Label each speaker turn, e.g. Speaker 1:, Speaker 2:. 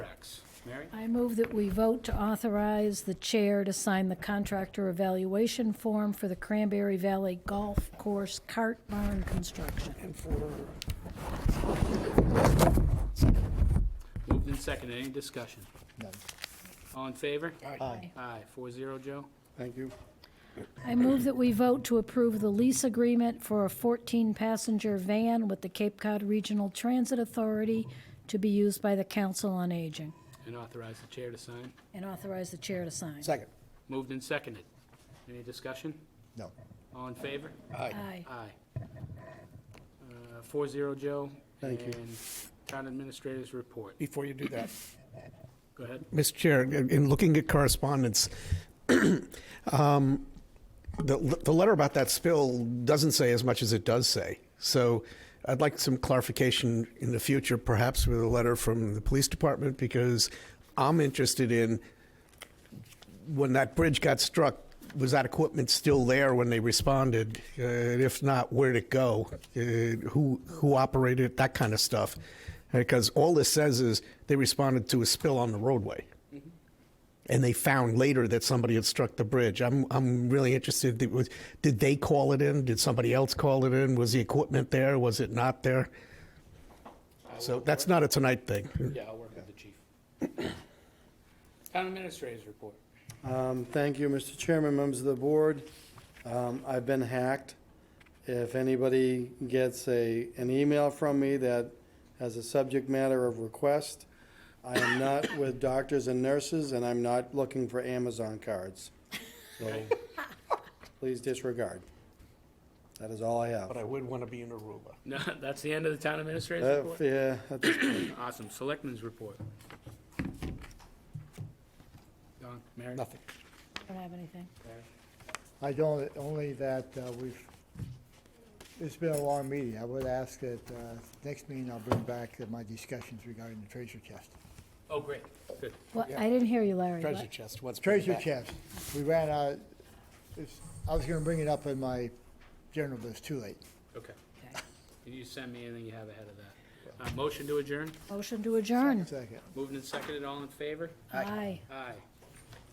Speaker 1: Mary?
Speaker 2: I move that we vote to authorize the chair to sign the contractor evaluation form for the Cranberry Valley Golf Course Cart Barn Construction.
Speaker 3: and for,
Speaker 1: Moved and seconded. Any discussion?
Speaker 4: None.
Speaker 1: All in favor?
Speaker 4: Aye.
Speaker 1: Aye, four zero, Joe.
Speaker 4: Thank you.
Speaker 2: I move that we vote to approve the lease agreement for a 14-passenger van with the Cape Cod Regional Transit Authority to be used by the Council on Aging,
Speaker 1: And authorize the chair to sign.
Speaker 2: and authorize the chair to sign.
Speaker 4: Second.
Speaker 1: Moved and seconded. Any discussion?
Speaker 4: No.
Speaker 1: All in favor?
Speaker 2: Aye.
Speaker 1: Aye. Uh, Four zero, Joe.
Speaker 4: Thank you.
Speaker 1: And town administrators report.
Speaker 3: before you do that.
Speaker 1: Go ahead.
Speaker 3: Mr. Chair, in in looking at correspondence, um, the, the letter about that spill doesn't say as much as it does say. So I'd like some clarification in the future, perhaps with a letter from the police department, because I'm interested in when that bridge got struck, was that equipment still there when they responded? Uh, and if not, where'd it go? Uh, who who operated it? That kind of stuff. Because all this says is they responded to a spill on the roadway, and they found later that somebody had struck the bridge. I'm I'm really interested. Did, was, did they call it in? Did somebody else call it in? Was the equipment there? Was it not there? So that's not a tonight thing.
Speaker 1: Yeah, I'll work with the chief. Town administrators report.
Speaker 4: Um, Thank you, Mr. Chairman, members of the board. Um, I've been hacked. If anybody gets a, an email from me that has a subject matter of request, I am not with doctors and nurses, and I'm not looking for Amazon cards. So please disregard. That is all I have.
Speaker 3: I would want to be in Aruba.
Speaker 1: No, that's the end of the town administrators
Speaker 4: Uh,
Speaker 1: report?
Speaker 4: Yeah, at this point,
Speaker 1: Awesome. Selectmen's report. Don, Mary?
Speaker 3: Nothing.
Speaker 2: Don't have anything.
Speaker 5: I don't, only that uh, we've, it's been a long meeting. I would ask that uh, next meeting I'll bring back my discussions regarding the treasure chest.
Speaker 1: Oh, great, good.
Speaker 2: Well, I didn't hear you, Larry.
Speaker 3: Treasure
Speaker 2: What?
Speaker 3: chest. What's
Speaker 5: Treasure chest, we ran out, it's, I was gonna bring it up in my general, but it's too late.
Speaker 1: Okay.
Speaker 2: Okay.
Speaker 1: Can you send me anything you have ahead of that? Uh, motion to adjourn?
Speaker 2: Motion to adjourn.
Speaker 5: Second.
Speaker 1: Moved and seconded, all in favor?
Speaker 2: Aye.
Speaker 1: Aye.